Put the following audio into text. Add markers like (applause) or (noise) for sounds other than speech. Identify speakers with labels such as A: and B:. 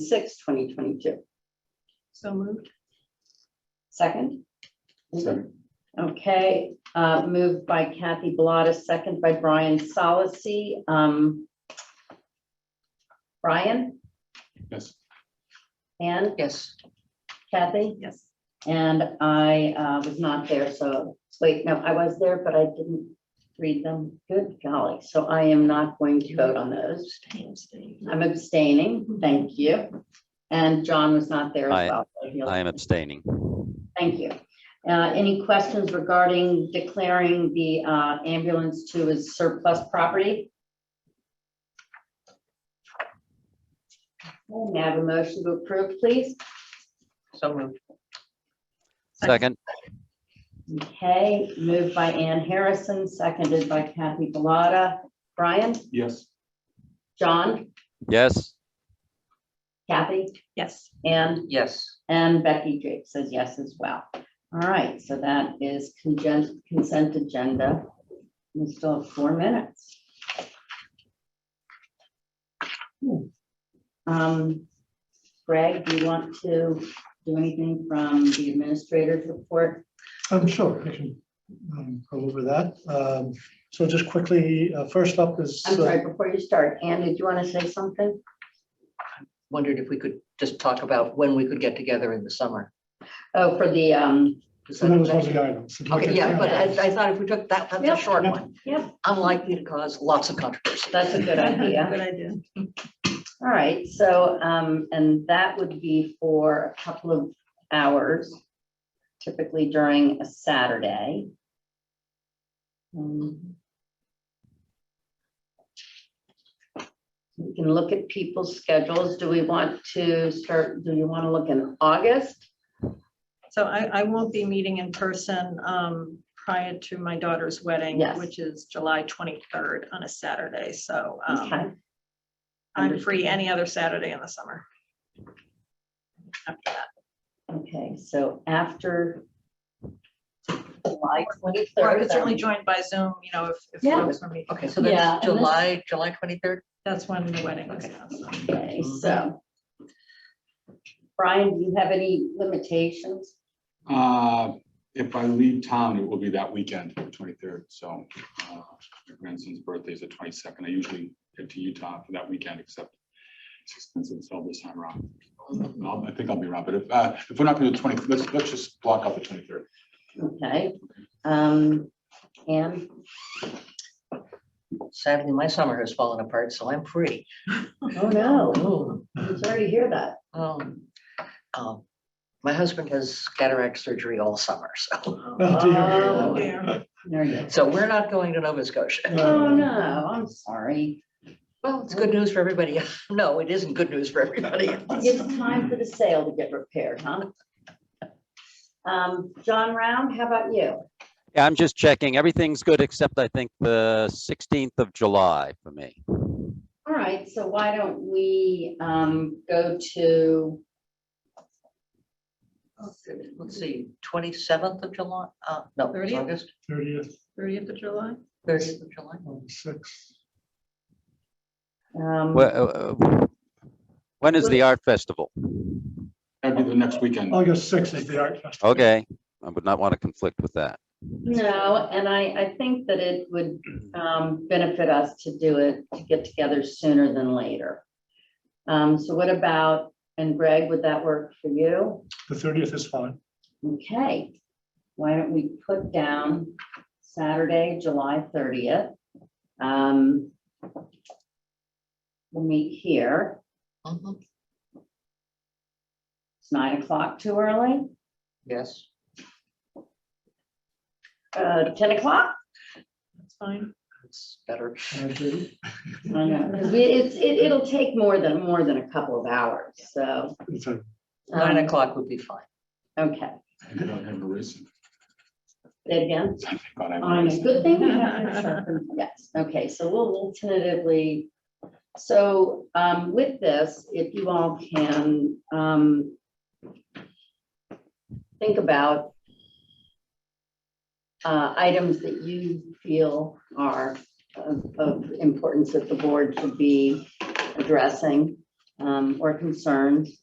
A: sixth, twenty twenty-two.
B: So moved.
A: Second?
C: Second.
A: Okay, uh, moved by Kathy Bellata, second by Brian Solacey. Um, Brian
C: Yes.
A: and
B: Yes.
A: Kathy?
B: Yes.
A: And I uh, was not there, so, wait, no, I was there, but I didn't read them. Good golly, so I am not going to vote on those. I'm abstaining, thank you. And John was not there as
D: I-
A: well. so he'll-
D: I am abstaining.
A: Thank you. Uh, Any questions regarding declaring the uh, ambulance to his surplus property? Okay, May I have a motion to approve, please?
B: So moved.
D: Second,
A: Okay, moved by Ann Harrison, seconded by Kathy Bellata. Brian,
C: Yes.
A: John,
D: yes,
A: Kathy,
B: Yes.
A: and,
B: Yes.
A: and Becky Drake says yes as well. All right, so that is consent, consent agenda. We still have four minutes. Hmm. Um, Greg, do you want to do anything from the administrator's report?
E: I'm Oh, sure, I can um, go over that. Um, So just quickly, uh, first up is.
A: I'm
E: uh,
A: sorry, before you start, Ann, did you want to say something?
B: Wondered if we could just talk about when we could get together in the summer.
A: Oh, for the, um,
B: Is
E: So that was
B: that-
E: one of the items.
B: Okay, yeah, but I, I thought if we took that, that's
A: Yeah.
B: a short one.
A: Yeah.
B: Unlikely to cause lots of controversy.
A: That's a good idea.
B: (laughs) Good idea.
A: All right, so, um, and that would be for a couple of hours, typically during a Saturday. Um, We can look at people's schedules. Do we want to start, do you want to look in August?
F: So I, I won't be meeting in person um, prior to my daughter's wedding,
A: Yes.
F: which is July 23rd on a Saturday. So um,
A: Okay,
F: I'm free any other Saturday in the summer. After that,
A: okay, so after July
F: Or I could certainly
A: 23rd.
F: join by Zoom, you know, if, if
A: Yeah.
F: folks are meeting.
B: Okay, so
A: Yeah,
B: that's
A: and this-
B: July, July twenty-third?
F: That's when the wedding is. so.
A: Okay, so. Brian, do you have any limitations?
C: Uh, If I leave town, it will be that weekend, twenty-third, so uh, my grandson's birthday is the twenty-second. I usually head to Utah for that weekend, except it's expensive, so this time around. I'll- I think I'll be around, but if, uh, if we're not gonna do twenty, let's, let's just block out the twenty-third.
A: Okay, um, and,
B: Sadly, my summer has fallen apart, so I'm free.
A: oh no,
B: Oh.
A: I'm sorry to hear that.
B: Um, um, My husband has cataract surgery all summer, so,
F: Oh,
A: Oh,
F: dear.
A: there you go.
B: so we're not going to Nova Scotia.
E: Uh,
A: Oh, no, I'm sorry.
B: Well, it's good news for everybody. (laughs) No, it isn't good news for
A: (laughs)
B: everybody.
A: It's time for the sale to get repaired, huh? Um, John Round, how about you?
D: Yeah, I'm just checking. Everything's good except I think the 16th of July for me.
A: All right, so why don't we, um, go to,
B: Let's see, twenty-seventh of July, uh, no, it's
F: 30th?
B: August,
E: Thirtieth,
F: 30th of July?
B: thirtieth of July.
E: on the sixth,
A: um,
D: Wh- uh, uh, When is the art festival?
C: That'd be the next weekend.
E: August sixth is the art festival.
D: Okay, I would not want to conflict with that.
A: No, and I, I think that it would um, benefit us to do it, to get together sooner than later. Um, So what about, and Greg, would that work for you?
E: The thirtieth is fine.
A: Okay, why don't we put down Saturday, July 30th? Um, We'll meet here.
B: Mhm,
A: It's nine o'clock too early,
B: Yes,
A: Uh, 10 o'clock?
F: That's fine.
B: it's better.
E: And I agree.
A: I know, 'cause we- it's, it- it'll take more than, more than a couple of hours, so.
E: It's a-
B: Nine
A: um,
B: o'clock would be fine.
A: Okay,
C: I think I'll have a race.
A: say it again.
C: I think I'll have a
A: On
C: race.
A: a good thing. we have to sharpen- (laughs) Yes, okay, so we'll we'll tentatively, so um, with this, if you all can um, think about uh, items that you feel are of of importance that the board should be addressing. um, or concerns.